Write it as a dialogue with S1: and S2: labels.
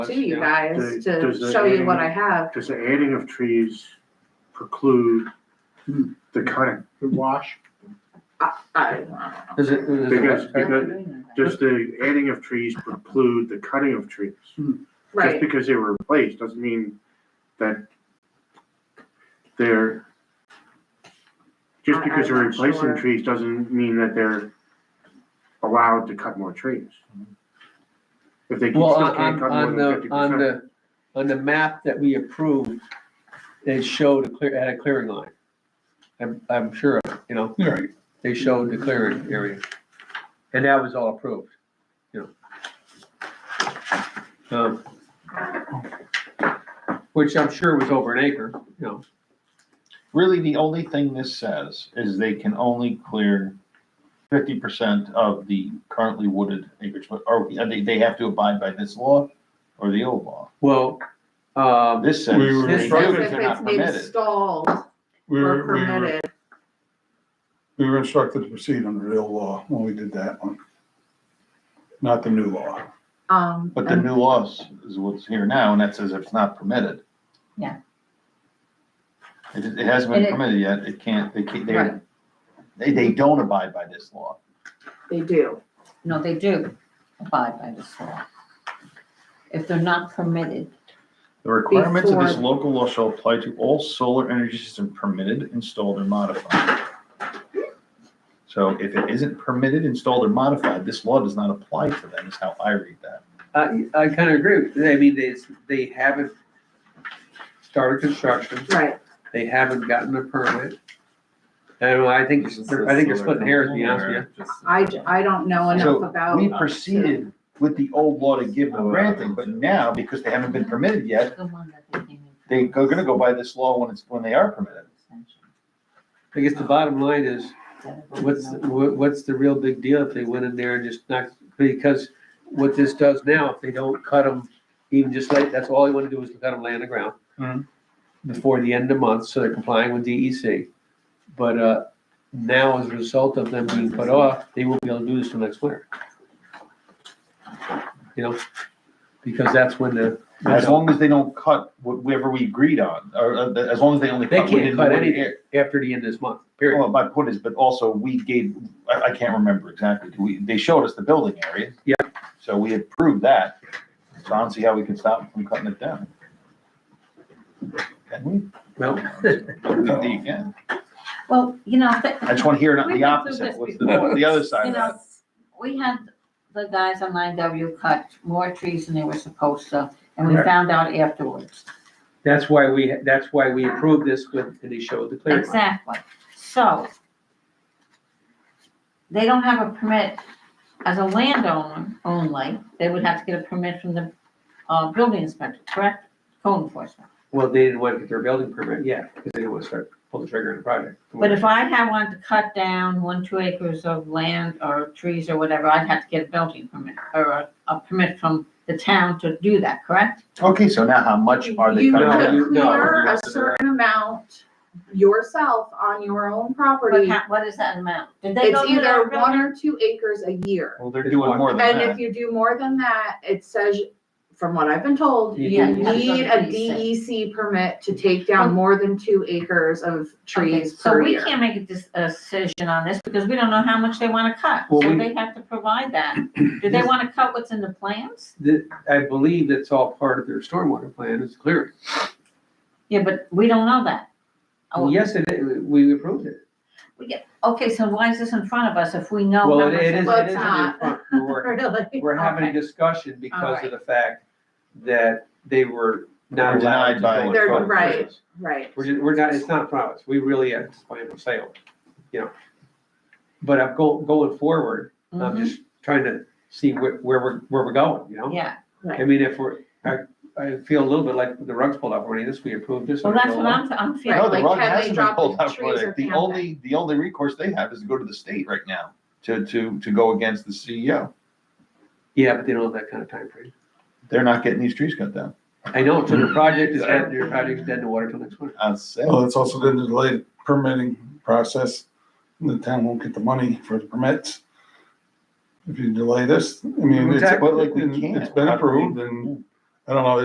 S1: to you
S2: Yeah.
S1: guys
S2: Does-
S1: to
S2: does the
S1: show you what I
S2: adding-
S1: have.
S2: Does the adding of trees preclude the cutting?
S3: The wash,
S1: I-
S4: Is it,
S2: Because,
S4: is it,
S2: because, does the adding of trees preclude the cutting of trees? Just
S1: Right,
S2: because they were replaced doesn't mean that they're, just
S1: I-
S2: because they're
S1: I'm not
S2: replacing
S1: sure.
S2: trees doesn't mean that they're allowed to cut more trees. If they can-
S4: well,
S2: still can't
S4: on,
S2: cut more
S4: on
S2: than
S4: the,
S2: fifty
S4: on
S2: percent.
S4: the, on the map that we approved, they showed a clear, had a clearing line. I'm, I'm sure, of it, you know,
S5: All right,
S4: they showed the clearing area. And that was all approved, you know. Um, Which I'm sure was over an acre, you know.
S5: really, the only thing this says is they can only clear fifty percent of the currently wooded acreage, but are, are they, they have to abide by this law or the old law?
S4: Well, um,
S5: This says.
S6: We were
S5: they
S1: this
S5: do,
S1: is
S6: Right.
S1: if
S5: they're not
S1: it's been
S5: permitted.
S1: installed
S6: We
S1: or
S6: were, we were,
S1: permitted,
S6: we were instructed to proceed under the old law when we did that one. Not the new law.
S1: um,
S5: But the
S1: and
S5: new laws is what's here now, and that says if it's not permitted.
S7: Yeah.
S5: It, it hasn't been
S7: And it-
S5: permitted yet, it can't, they can't, they,
S1: Right.
S5: they, they don't abide by this law.
S1: they do.
S7: No, they do abide by this law. If they're not permitted,
S5: The requirements of this
S1: Before-
S5: local law shall apply to all solar energy system permitted, installed, or modified. So if it isn't permitted, installed, or modified, this law does not apply to them, is how I read that.
S4: I, I kind of agree. with I mean, they, they haven't started construction.
S1: Right,
S4: They haven't gotten a permit. And I think, it's- I think it's splitting hairs, to be honest with you.
S1: I, j- I don't know enough
S5: So,
S4: Oh.
S1: about.
S5: We proceeded with the old law to give them granting, but now, because they haven't been permitted yet,
S7: the one that they came
S5: they're
S7: in. for
S5: gonna go by this law when it's, when they are permitted.
S7: extension,
S4: I guess the bottom line is,
S7: that it was
S4: what's,
S7: not-
S4: wha- what's the real big deal if they went in there and just knocked, because what this does now, if they don't cut them, even just like, that's all they want to do is cut them lay on the ground
S5: Mhm.
S4: before the end of the month, so they're complying with DEC. But, uh, now as a result of them being put off, they won't be able to do this till next winter. You know, because that's when the.
S5: As long as they don't cut whatever we agreed on, or, uh, as long as they only
S4: They
S5: cut
S4: can't
S5: within
S4: cut
S5: the
S4: anything after the end of this month, period.
S5: Well, my point is, but also we gave, I, I can't remember exactly, we, they showed us the building area.
S4: Yeah.
S5: So we approved that, so I don't see how we can stop them from cutting it down. Can we?
S4: Well,
S5: I don't think you can.
S7: Well, you know, th-
S5: I just wanna hear
S7: We've
S5: the
S7: been through
S5: opposite,
S7: this
S5: what's the,
S7: before.
S5: what's the other side
S7: you
S5: of
S7: know,
S5: that?
S7: we had the guys on nine W cut more trees than they were supposed to, and we found out afterwards.
S4: That's why we, that's why we approved this with, and they showed the clearing line.
S7: Exactly, so. They don't have a permit as a landowner only, they would have to get a permit from the, uh, building inspector, correct? Code enforcement.
S4: Well, they didn't want to get their building permit yet, because they didn't want to start, pull the trigger on the project.
S7: But if I had wanted to cut down one, two acres of land or trees or whatever, I'd have to get a building permit or a, a permit from the town to do that, correct?
S5: Okay, so now how much are they
S1: You
S5: cutting?
S4: No,
S1: could
S4: you- no,
S1: clear
S4: you
S1: a
S4: have to-
S1: certain amount yourself on your own
S7: But
S1: property.
S7: how- what is that amount? Did they
S1: It's
S7: go through
S1: either
S7: that
S1: one
S7: building?
S1: or two acres a year.
S5: Well, they're doing more than
S1: And if
S5: that.
S1: you do more than that, it says, from what I've been told,
S4: You
S1: you
S4: do-
S7: You have to go
S1: need
S7: to
S1: a DEC permit to take down more than two acres of
S7: Okay,
S1: trees per
S7: So we
S1: year.
S7: can't make a dis- a decision on this because we don't know how much they wanna cut, so
S4: Well, we-
S7: they have to provide that. Do they wanna cut what's in the plans?
S4: The- I believe that's all part of their stormwater plan is clearing.
S7: Yeah, but we don't know that. Oh,
S4: Yes, it, is. we approved it.
S7: Okay, so why is this in front of us if we know?
S4: Well,
S7: how
S4: it
S7: much
S4: it is,
S1: Well,
S4: it
S1: it's
S4: is.
S1: not.
S4: We're working-
S1: Really?
S4: We're having a
S7: Okay.
S4: discussion because of
S7: Alright.
S4: the fact that they were
S5: They're
S4: not allowed to
S5: denied by
S4: go in
S1: They're
S4: front of
S1: right.
S4: business.
S1: Right.
S4: We're, ju- we're not, it's not a promise, we really are just planning on sale, you know. But I'm go, going forward, I'm
S7: Mhm,
S4: just trying to see where, where we're, where we're going, you know?
S7: Yeah,
S4: I mean, if we're, I, I feel a little bit like the rug's pulled out already, this, we approved this.
S7: well,
S4: and
S7: that's
S4: we're
S7: what
S4: going
S7: I'm, I'm feeling.
S5: No,
S1: Right,
S5: the
S1: like,
S5: rug
S1: have they
S5: hasn't been
S1: dropped
S5: pulled
S1: the
S5: out for
S1: trees or
S5: it. The
S1: can't
S5: only, the only recourse they have is to go to the state right now to, to, to go against the E CEO.
S4: along. Yeah, but they don't have that kind of time frame.
S5: They're not getting these trees cut down.
S4: I know, so the project is, dead- your project is dead in the water till next winter.
S5: I'd say.
S6: Well, it's also going to delay the permitting process. The town won't get the money for the permits. If you delay this, I mean, it's,
S4: Exactly.
S6: it's been approved and I don't know,